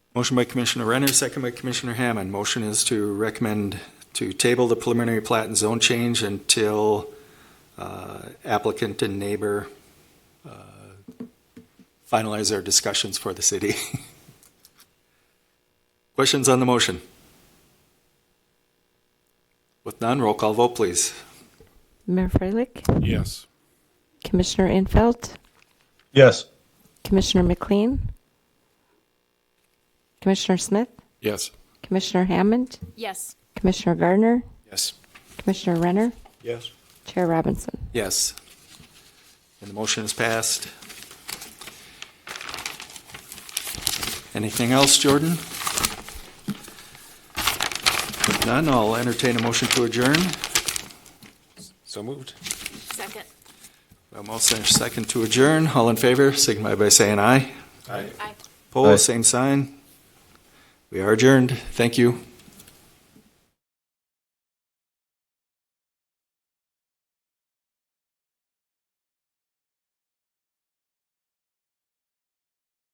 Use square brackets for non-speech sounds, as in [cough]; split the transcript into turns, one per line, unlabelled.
Motion by Commissioner Renner, second by Commissioner Hammond. Motion is to recommend to table the preliminary plat and zone change until uh, applicant and neighbor uh, finalize their discussions for the city. [laughs] Questions on the motion? With none, roll call vote, please.
Mayor Freilich,
Yes.
Commissioner Infeld,
Yes.
Commissioner McLean, Commissioner Smith,
Yes.
Commissioner Hammond,
Yes.
Commissioner Gardner,
Yes.
Commissioner Renner,
Yes.
Chair Robinson.
Yes. And the motion is passed. Anything else, Jordan? If none, I'll entertain a motion to adjourn.
So moved.
Second.
A motion and a second to adjourn. All in favor, signify by saying aye.
Aye.
Poll,
Aye.
same sign. We are adjourned. Thank you.